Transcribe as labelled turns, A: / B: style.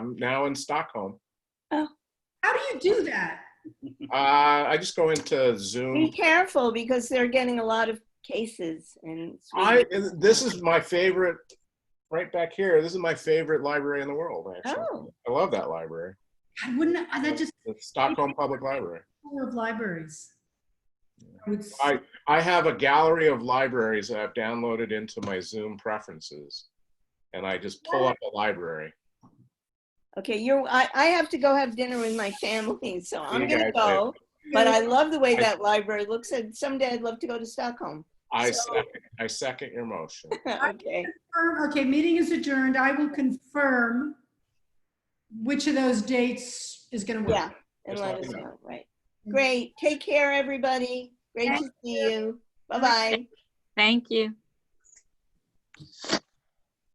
A: I'm now in Stockholm.
B: How do you do that?
A: Uh, I just go into
C: Be
A: Zoom.
C: careful because they're getting a lot of cases and.
A: I this is my favorite. Right back here. This is my favorite library in the world. Actually,
C: Oh,
A: I love that library.
B: I wouldn't, I- that just
A: The Stockholm Public Library.
B: full of libraries. I would s-
A: I I have a gallery of libraries that I've downloaded into my Zoom preferences, and I just pull up a library.
C: okay, you're, I, I have to go have dinner with my family, so I'm
A: You
C: gonna
A: guys
C: go. But I love the way
A: I-
C: that library looks and someday I'd love to go to Stockholm.
A: I
C: So-
A: second, I second your motion.
C: Okay,
B: Confirm- Okay, meeting is adjourned. I will confirm which of those dates is going to
C: yeah,
B: work.
C: and
A: Just
C: let
A: let
C: us
A: me know.
C: know, right. Great, take care, everybody. Great to see you. Bye-bye.
D: Thank you.